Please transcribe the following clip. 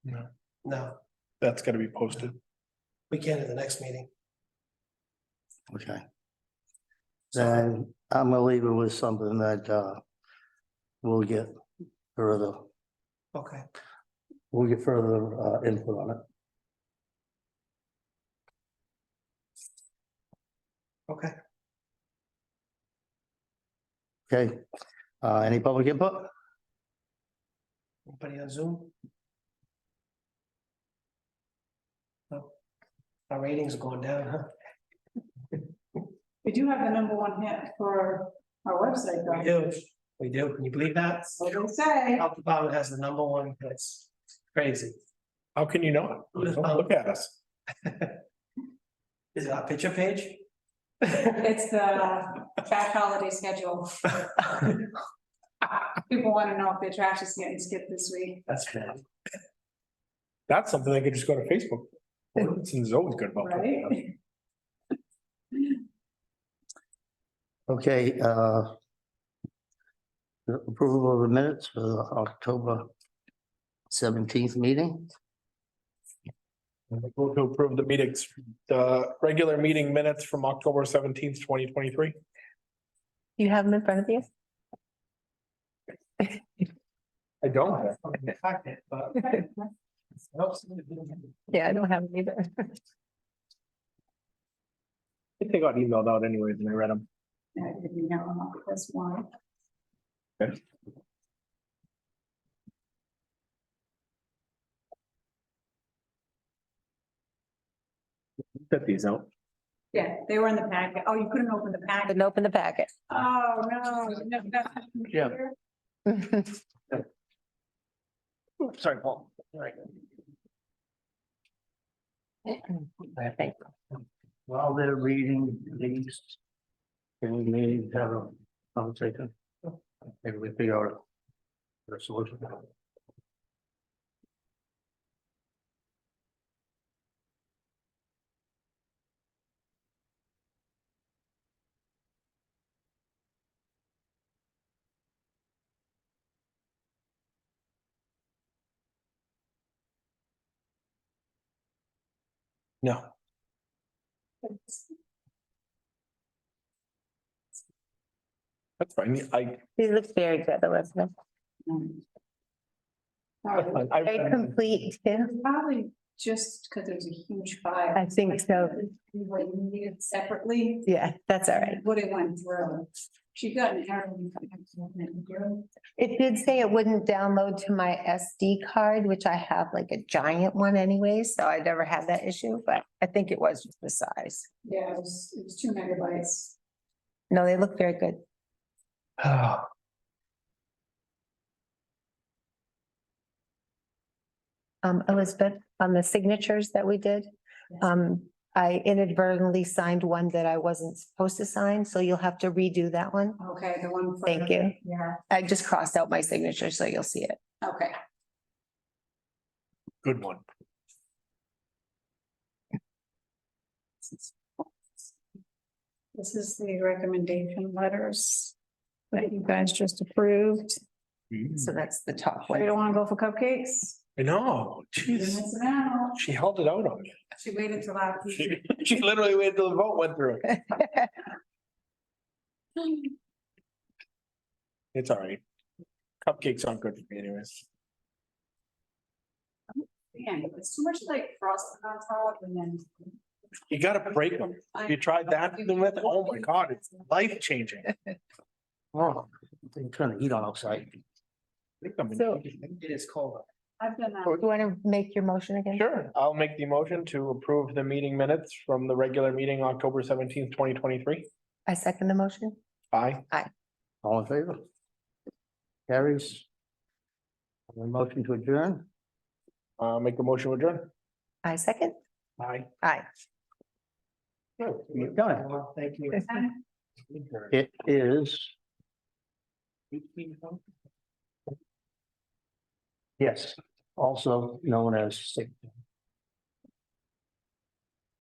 No, That's gotta be posted. we can at the next meeting. Okay. Then I'm gonna leave it with something that, uh, we'll get further, Okay, we'll get further, uh, input on it. okay. Okay, uh, any public input? Anybody on Zoom? No. Our ratings are going down, huh? We do have the number one hit for our website, We though. do, we do. Can you believe that? So they say, Health department has the number one, that's crazy. How can you not? Don't Look at us. Is it our picture page? it's the trash holiday schedule. People want to know if their trash is getting skipped this week. That's bad. That's something they could just go to Facebook. Ordinance is always good about. that. Right? Okay, uh. the Approval of the minutes for the October seventeenth meeting, Vote to approve the meetings, the regular meeting minutes from October seventeenth, twenty twenty-three. You have them in front of you? I don't have. Fuck it, but I hope somebody didn't- Yeah, I don't have them either. I think they got emailed out anyways and I read them. Yeah, you know, That's one. Set these out. Yeah, they were in the packet. Oh, you couldn't open the packet. Didn't open the packet. Oh, no. no, that's not computer. sorry, Paul. Thank While they're reading these. Can we maybe have a conversation? Maybe we figure out. a- a solution. No. That's fine. I, These look very good, the rest of them. Um, that's sorry. fine. I Very read 'em. complete too. Probably just because there's a huge file. I think so. Like, you need it separately. Yeah, that's all right. What it went through. She got an error. when she got it through. It did say it wouldn't download to my SD card, which I have like a giant one anyway, so I never had that issue, but I think it was just the size. Yeah, it was, it was two megabytes. No, they look very good. Ah. Um, Elizabeth, on the signatures that we did, um, I inadvertently signed one that I wasn't supposed to sign, so you'll have to redo that one. Okay, the one. for- Thank you. Yeah, I just crossed out my signature, so you'll see it. okay. Good one. This is the recommendation letters that you guys just approved. So that's the top We one. don't want to go for cupcakes. I know, You're jeez, missing out. she held it out on me. She waited till after. She, she literally waited till the vote went through. It's all right. Cupcakes aren't good for me anyways. Man, it's too much like frosting on top and then. You gotta break them. You tried that, then with, oh my God, it's life changing. Oh, I'm trying to eat on outside. So- It is cold. I've done that. You want to make your motion again? Sure, I'll make the motion to approve the meeting minutes from the regular meeting October seventeenth, twenty twenty-three. I second the motion. Aye. All in favor? Carries. A Motion to adjourn? Uh, make the motion adjourn. I second. Aye. Aye. You've done it. Well, Thank you. It is, yes, also known as sick